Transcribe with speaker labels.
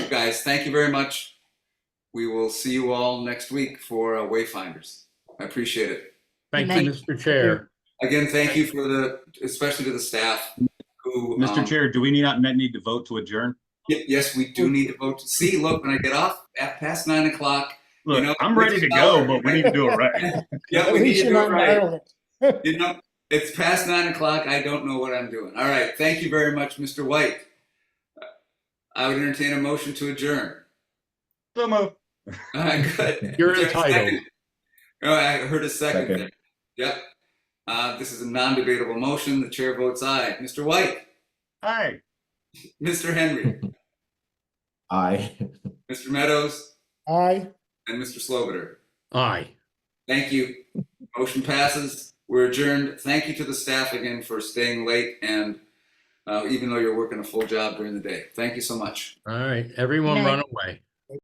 Speaker 1: guys. Thank you very much. We will see you all next week for uh, Wayfinders. I appreciate it.
Speaker 2: Thank
Speaker 3: Good
Speaker 2: you, Mr. Chair.
Speaker 1: Again, thank you for the, especially to the staff who.
Speaker 4: Mr.
Speaker 1: um,
Speaker 4: Chair, do we need, not need to vote to adjourn?
Speaker 1: y- Yes, we do need to vote. See, look, when I get off at past nine o'clock. You know,
Speaker 4: Look, I'm ready to go, but we need to do it right.
Speaker 1: Yeah, we
Speaker 5: At
Speaker 1: need
Speaker 5: least
Speaker 1: to
Speaker 5: you're
Speaker 1: do it
Speaker 5: not in
Speaker 1: right.
Speaker 5: Ireland.
Speaker 1: You know, it's past nine o'clock. I don't know what I'm doing. All right. Thank you very much, Mr. White. I would entertain a motion to adjourn.
Speaker 4: So moved.
Speaker 1: All right, good.
Speaker 2: You're
Speaker 1: Is there a
Speaker 2: entitled.
Speaker 1: second? Oh, I heard a second
Speaker 6: Second.
Speaker 1: there. Yep. Uh, this is a non-debatable motion. The chair votes aye. Mr. White,
Speaker 4: Hi.
Speaker 1: Mr. Henry,
Speaker 6: Aye.
Speaker 1: Mr. Meadows,
Speaker 5: Aye.
Speaker 1: and Mr. Slobiter.
Speaker 2: Aye.
Speaker 1: Thank you. Motion passes. We're adjourned. Thank you to the staff again for staying late and uh, even though you're working a full job during the day. Thank you so much.
Speaker 2: All right, everyone
Speaker 3: Good night.
Speaker 2: run away.